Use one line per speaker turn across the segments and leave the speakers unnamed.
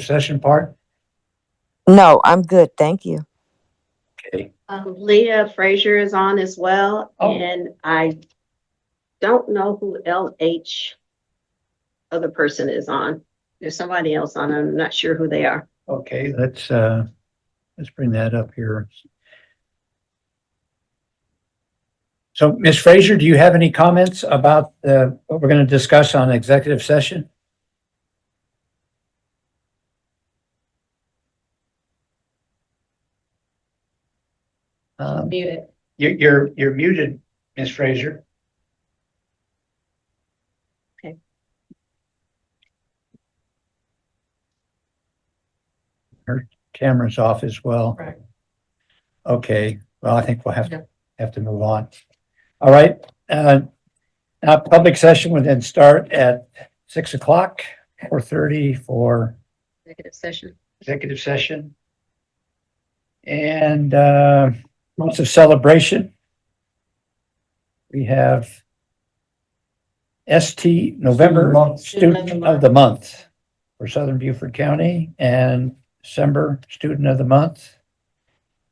session part?
No, I'm good. Thank you.
Okay,
Um, Leah Frazier is on as well,
Oh.
and I don't know who LH other person is on. There's somebody else on, I'm not sure who they are.
okay, let's, uh, let's bring that up here. So Ms. Frazier, do you have any comments about, uh, what we're going to discuss on executive session? Um,
Muted.
you're, you're, you're muted, Ms. Frazier. Cameras off as well.
Right.
Okay, well, I think we'll have
Yeah.
to, have to move on. All right, uh, now public session would then start at six o'clock, four thirty for
Executive session.
executive session. And uh, months of celebration. We have ST November, Student of the Month for Southern Beaufort County and December Student of the Month.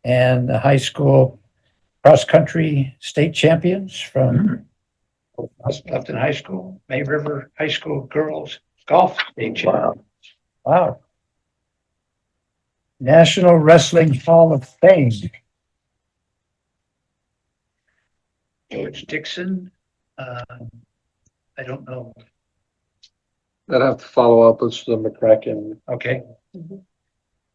And the high school cross-country state champions from Lefton High School, May River High School Girls Golf State Champions. Wow. National Wrestling Hall of Fame. George Dixon, uh, I don't know,
I'd have to follow up with the McCracken.
okay?
Mhm.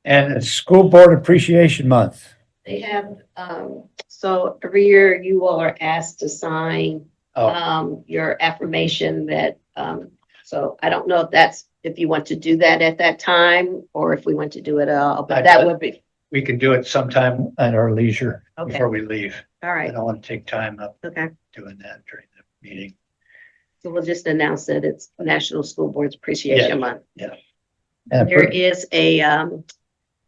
And it's School Board Appreciation Month.
They have, um, so every year you all are asked to sign,
Oh,
um, your affirmation that, um, so I don't know if that's, if you want to do that at that time, or if we want to do it at all,
I-
but that would be,
we can do it sometime at our leisure
Okay.
before we leave.
all
I
right,
don't want to take time up
okay.
doing that during the meeting.
So we'll just announce that it's National School Boards Appreciation Month.
And
There is a um,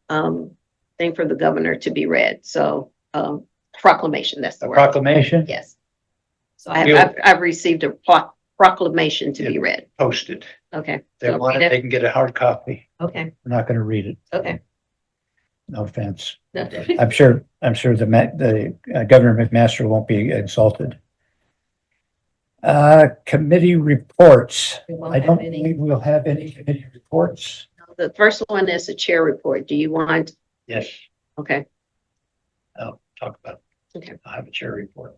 um, thing for the governor to be read, so um, proclamation, that's
a
the word,
proclamation
yes. So I have, I've, I've received a pro- proclamation to be read,
posted.
okay,
They
Don't
want
read
it,
it.
they can get a hard copy.
okay,
We're not going to read it,
okay.
no offense.
Okay.
I'm sure, I'm sure the, ma- the uh, Governor McMaster won't be insulted. Uh, committee reports.
We won't
I
have
don't
any.
believe we'll have any committee reports.
The first one is the chair report, do you want,
Yes,
okay,
I'll talk about. it.
Okay.
I'll have a chair report.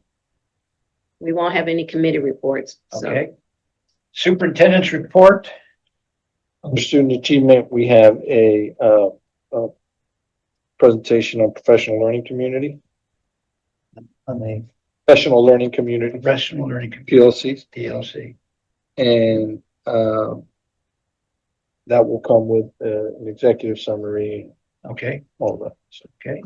we won't have any committee reports, so.
Okay. Superintendent's report.
For student achievement, we have a, uh, uh, presentation on professional learning community,
On the
professional learning community,
professional learning computer
PLCs,
DLC.
and, um, that will come with, uh, an executive summary, and
Okay,
all that. So
okay.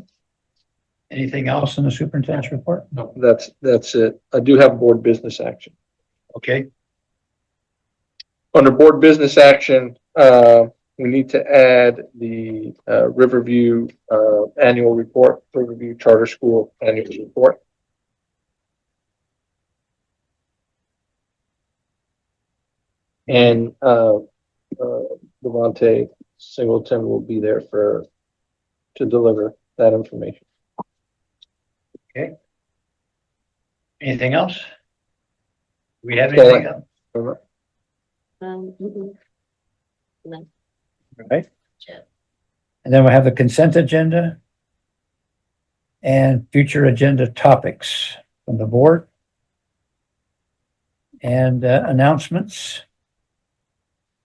Anything else in the superintendent's report?
that's, that's it. I do have board business action.
Okay,
Under board business action, uh, we need to add the, uh, Riverview, uh, annual report, Riverview Charter School annual report. And, uh, uh, Devonte Singleton will be there for, to deliver that information.
anything else? We have
Okay.
anything else?
um, mm-mm. No,
Right? And then we'll have the consent agenda and future agenda topics from the board. And uh, announcements.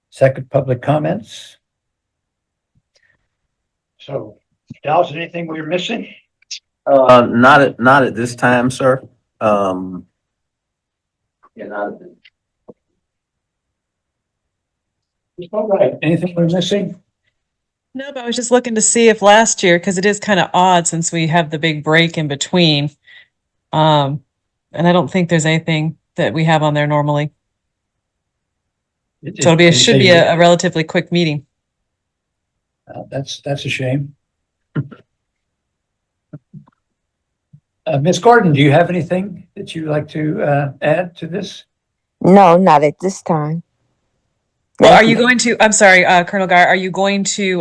Second, public comments. So, Dallas, anything we're missing?
Uh, not at, not at this time, sir. Um. Yeah, not at this.
All right. Anything we're missing?
No, but I was just looking to see if last year, because it is kind of odd since we have the big break in between. Um, and I don't think there's anything that we have on there normally. So it'll be, it should be a a relatively quick meeting.
Uh, That's, that's a shame. Uh, Ms. Gordon, do you have anything that you'd like to, uh, add to this?
No, not at this time.
Well,
Thank
are you going to, I'm sorry, uh, Colonel Guy, are you going to